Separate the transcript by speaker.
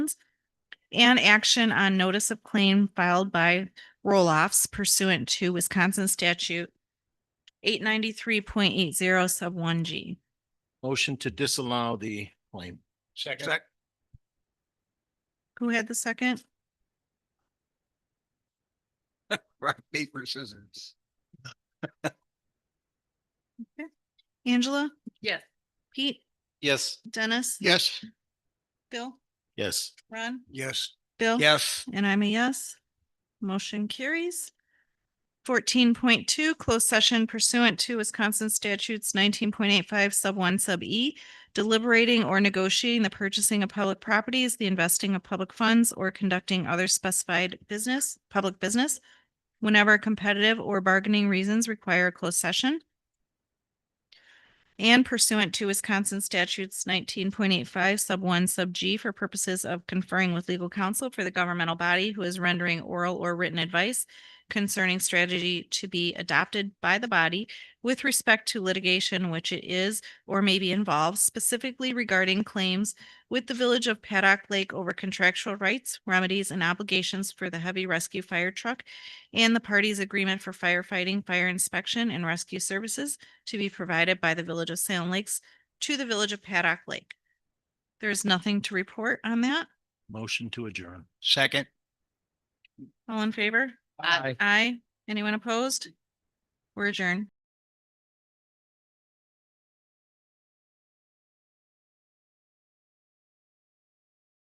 Speaker 1: and action on notice of claim filed by roll-offs pursuant to Wisconsin statute eight ninety-three point eight zero sub one G.
Speaker 2: Motion to disallow the claim.
Speaker 3: Second.
Speaker 1: Who had the second?
Speaker 3: Rock, paper, scissors.
Speaker 1: Angela,
Speaker 4: Yes.
Speaker 1: Pete,
Speaker 2: Yes.
Speaker 1: Dennis?
Speaker 3: Yes.
Speaker 1: Bill,
Speaker 2: Yes.
Speaker 1: Ron,
Speaker 3: Yes.
Speaker 1: Bill?
Speaker 3: Yes.
Speaker 1: And I'm a yes. Motion carries. Fourteen point two, closed session pursuant to Wisconsin statutes nineteen point eight five sub one sub E, deliberating or negotiating the purchasing of public properties, the investing of public funds, or conducting other specified business, public business, whenever competitive or bargaining reasons require a closed session. And pursuant to Wisconsin statutes nineteen point eight five sub one sub G for purposes of conferring with legal counsel for the governmental body who is rendering oral or written advice concerning strategy to be adopted by the body with respect to litigation which it is or may be involved specifically regarding claims with the village of Paddock Lake over contractual rights, remedies, and obligations for the heavy rescue fire truck and the parties' agreement for firefighting, fire inspection, and rescue services to be provided by the Village of Salem Lakes to the Village of Paddock Lake. There is nothing to report on that.
Speaker 2: Motion to adjourn.
Speaker 3: Second.
Speaker 1: All in favor?
Speaker 4: Aye.
Speaker 1: Aye. Anyone opposed? We're adjourned.